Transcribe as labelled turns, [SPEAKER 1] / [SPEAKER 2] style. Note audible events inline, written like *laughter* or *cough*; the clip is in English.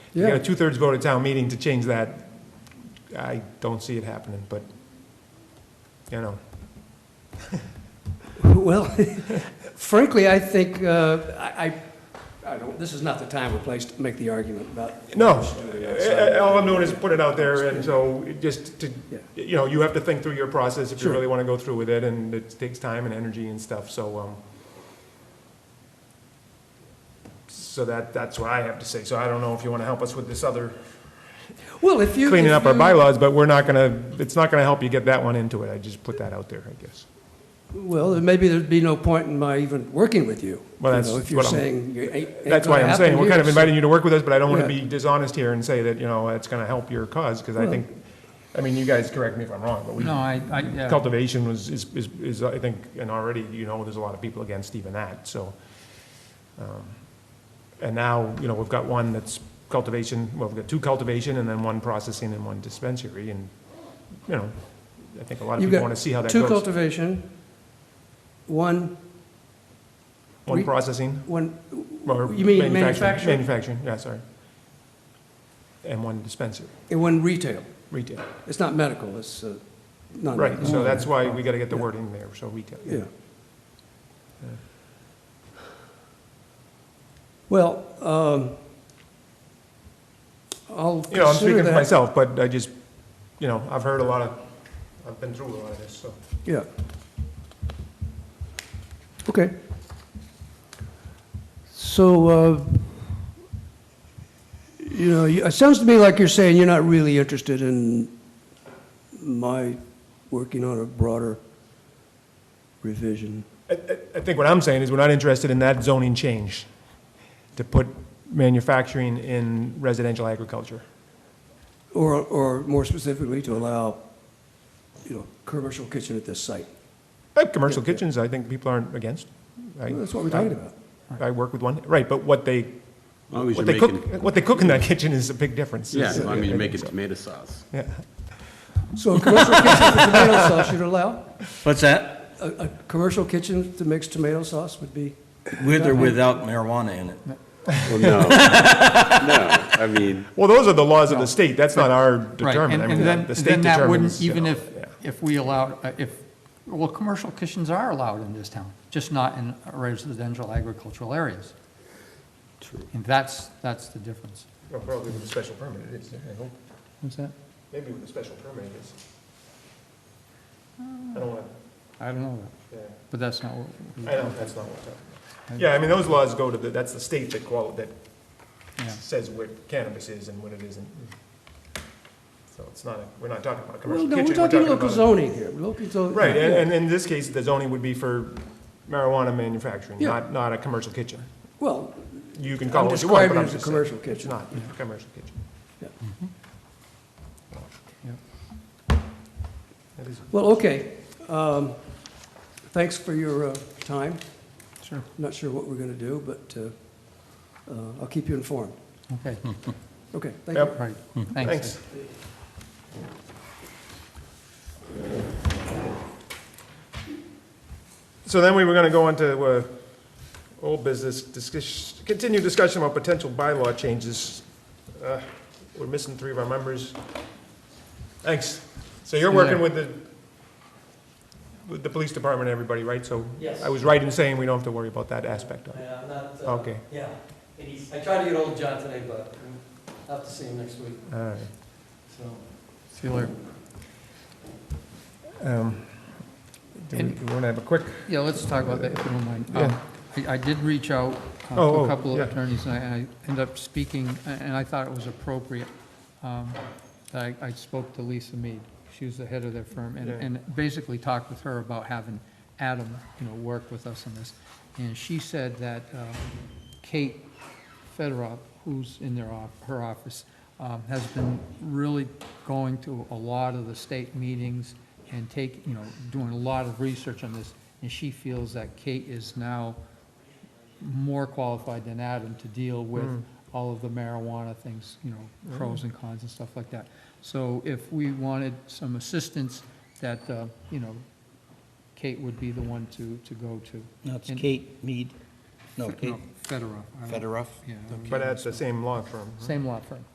[SPEAKER 1] You got
[SPEAKER 2] Yeah.
[SPEAKER 1] a two-thirds vote at town meeting to change that. I don't see it happening, but, you know,
[SPEAKER 2] Well, *laughs* frankly, I think, uh, I, I- I don't, this is not the time or place to make the argument about.
[SPEAKER 1] no. Uh, All I'm doing is put it out there, and uh, so it just to,
[SPEAKER 2] Yeah.
[SPEAKER 1] you know, you have to think through your process if you
[SPEAKER 2] Sure.
[SPEAKER 1] really want to go through with it, and it takes time and energy and stuff, so, um, so that, that's what I have to say. So I don't know if you want to help us with this other
[SPEAKER 2] Well, if you.
[SPEAKER 1] cleaning
[SPEAKER 2] if
[SPEAKER 1] up our
[SPEAKER 2] you-
[SPEAKER 1] bylaws, but we're not gonna, it's not gonna help you get that one into it. I just put that out there, I guess.
[SPEAKER 2] Well, then maybe there'd be no point in my even working with you.
[SPEAKER 1] Well,
[SPEAKER 2] you
[SPEAKER 1] that's
[SPEAKER 2] know, If you're
[SPEAKER 1] what I'm-
[SPEAKER 2] saying you ain't- ain't
[SPEAKER 1] That's why
[SPEAKER 2] gonna
[SPEAKER 1] I'm saying,
[SPEAKER 2] happen
[SPEAKER 1] we're kind of
[SPEAKER 2] here,
[SPEAKER 1] inviting you to work with us, but I don't want to
[SPEAKER 2] Yeah.
[SPEAKER 1] be dishonest here and say that, you know, it's gonna help your cause, because I think, I mean, you guys correct me if I'm wrong, but we
[SPEAKER 3] No, I, I, yeah,
[SPEAKER 1] cultivation was, is, is, is, I think, and already, you know, there's a lot of people against even that, so. um, And now, you know, we've got one that's cultivation, well, we've got two cultivation and then one processing and one dispensary, and, you know, I think a lot of
[SPEAKER 2] You've
[SPEAKER 1] people
[SPEAKER 2] got
[SPEAKER 1] want to see how that
[SPEAKER 2] Two
[SPEAKER 1] goes.
[SPEAKER 2] cultivation, one,
[SPEAKER 1] One
[SPEAKER 2] re-
[SPEAKER 1] processing,
[SPEAKER 2] one,
[SPEAKER 1] or
[SPEAKER 2] You mean
[SPEAKER 1] manufacturing,
[SPEAKER 2] manufacturing?
[SPEAKER 1] manufacturing, yeah, sorry. And one dispensary,
[SPEAKER 2] and one retail.
[SPEAKER 1] retail,
[SPEAKER 2] It's not medical, it's uh, not.
[SPEAKER 1] right, so that's why we gotta get the
[SPEAKER 2] Yeah.
[SPEAKER 1] word in there, so retail.
[SPEAKER 2] Yeah. Well, um, I'll
[SPEAKER 1] You know, I'm
[SPEAKER 2] consider
[SPEAKER 1] speaking for
[SPEAKER 2] that.
[SPEAKER 1] myself, but I just, you know, I've heard a lot of, I've been through a lot of this, so.
[SPEAKER 2] Yeah. Okay. So, uh, you know, you- it sounds to me like you're saying you're not really interested in my working on a broader revision.
[SPEAKER 1] I, I- I think what I'm saying is we're not interested in that zoning change to put manufacturing in residential agriculture.
[SPEAKER 2] Or, or more specifically, to allow, you know, commercial kitchen at this site.
[SPEAKER 1] Uh, commercial kitchens, I think people aren't against. I-
[SPEAKER 2] That's what we're talking about.
[SPEAKER 1] I work with one, right, but what they,
[SPEAKER 4] As long as
[SPEAKER 1] what
[SPEAKER 4] you're
[SPEAKER 1] they cook,
[SPEAKER 4] making,
[SPEAKER 1] what they cook in that kitchen is a big difference.
[SPEAKER 4] yeah, as
[SPEAKER 1] It's-
[SPEAKER 4] long as you're
[SPEAKER 1] I think
[SPEAKER 4] making
[SPEAKER 1] so.
[SPEAKER 4] tomato sauce.
[SPEAKER 1] Yeah.
[SPEAKER 2] So a commercial kitchen with tomato sauce you'd allow?
[SPEAKER 5] What's that?
[SPEAKER 2] A, a commercial kitchen that makes tomato sauce would be,
[SPEAKER 5] With or without marijuana in it?
[SPEAKER 4] Well, no, *laughs* no, I mean,
[SPEAKER 1] Well, those are the laws of the state, that's not our
[SPEAKER 3] right,
[SPEAKER 1] determined,
[SPEAKER 3] and
[SPEAKER 1] I
[SPEAKER 3] and then,
[SPEAKER 1] mean, the state
[SPEAKER 3] then that
[SPEAKER 1] determines.
[SPEAKER 3] wouldn't,
[SPEAKER 1] you
[SPEAKER 3] even
[SPEAKER 1] know,
[SPEAKER 3] if,
[SPEAKER 1] yeah.
[SPEAKER 3] if we allowed, uh, if, well, commercial kitchens are allowed in this town, just not in residential agricultural areas. True. And that's, that's the difference.
[SPEAKER 1] Well, Probably with a special permit it is, I hope.
[SPEAKER 3] What's that?
[SPEAKER 1] Maybe with a special permit it is.
[SPEAKER 2] Uh.
[SPEAKER 1] I don't want
[SPEAKER 3] I don't know, that,
[SPEAKER 1] to, yeah.
[SPEAKER 3] but that's not what. we-
[SPEAKER 1] I know, that's not what I'm talking about. Yeah, I mean, those laws go to the, that's the state that qual, that
[SPEAKER 3] Yeah.
[SPEAKER 1] says what cannabis is and what it isn't. So it's not, a we're not talking about a commercial
[SPEAKER 2] well, no,
[SPEAKER 1] kitchen.
[SPEAKER 2] we're talking local
[SPEAKER 1] about a-
[SPEAKER 2] zoning here, local zoning.
[SPEAKER 1] Right, and, and in this case, the zoning would be for marijuana manufacturing,
[SPEAKER 2] Yeah.
[SPEAKER 1] not, not a commercial kitchen.
[SPEAKER 2] Well,
[SPEAKER 1] You can call
[SPEAKER 2] I'm
[SPEAKER 1] it what you want,
[SPEAKER 2] describing
[SPEAKER 1] but
[SPEAKER 2] it
[SPEAKER 1] I'm
[SPEAKER 2] as a
[SPEAKER 1] just saying.
[SPEAKER 2] commercial
[SPEAKER 1] It's
[SPEAKER 2] kitchen.
[SPEAKER 1] not, a commercial kitchen. Mm-hmm.
[SPEAKER 2] Yeah.
[SPEAKER 3] Yeah.
[SPEAKER 1] That is-
[SPEAKER 2] Well, okay. Um, Thanks for your uh, time.
[SPEAKER 3] Sure,
[SPEAKER 2] Not sure what we're going to do, but uh, uh, I'll keep you informed.
[SPEAKER 3] okay,
[SPEAKER 2] Okay, thank
[SPEAKER 1] Yep.
[SPEAKER 2] you.
[SPEAKER 3] right,
[SPEAKER 1] Hmm. Thanks.
[SPEAKER 3] thanks.
[SPEAKER 1] So then we were gonna go on to, uh, old business, discuss, continue discussion about potential bylaw changes. Uh, We're missing three of our members. Thanks. So you're working with the, with the police department, and everybody, right? So
[SPEAKER 6] Yes.
[SPEAKER 1] I Oh. was right in saying we don't have to worry about that aspect of it.
[SPEAKER 6] Yeah, I'm not, uh,
[SPEAKER 1] Okay,
[SPEAKER 6] yeah. I tried to get old John today, but I'll have to see him next week,
[SPEAKER 1] all right.
[SPEAKER 6] so.
[SPEAKER 3] See you later.
[SPEAKER 1] Um, Do we,
[SPEAKER 3] And-
[SPEAKER 1] we wanna have a quick?
[SPEAKER 3] Yeah, let's talk about that, if you don't mind.
[SPEAKER 1] Yeah.
[SPEAKER 3] Um, I I did reach out uh, to
[SPEAKER 1] Oh, oh,
[SPEAKER 3] a couple
[SPEAKER 1] yeah.
[SPEAKER 3] of attorneys, and I and I ended up speaking, a- and I thought it was appropriate. um, that I I spoke to Lisa Mead, she was the head of their firm, and-
[SPEAKER 1] Yeah.
[SPEAKER 3] and basically talked with her about having Adam, you know, work with us on this. And she said that um, Kate Federoff, who's in their, off- her office, um, has been really going to a lot of the state meetings and take, you know, doing a lot of research on this, and she feels that Kate is now more qualified than Adam to deal with all of the marijuana things, you know, pros and cons and stuff like that. So if we wanted some assistance, that, uh, you know, Kate would be the one to, to go to.
[SPEAKER 5] No, it's
[SPEAKER 3] And-
[SPEAKER 5] Kate Mead. No, Kate
[SPEAKER 3] Federoff. I don't-
[SPEAKER 5] Federoff?
[SPEAKER 3] Yeah. I don't
[SPEAKER 1] but
[SPEAKER 3] know.
[SPEAKER 1] that's the same law firm.
[SPEAKER 3] Same law firm.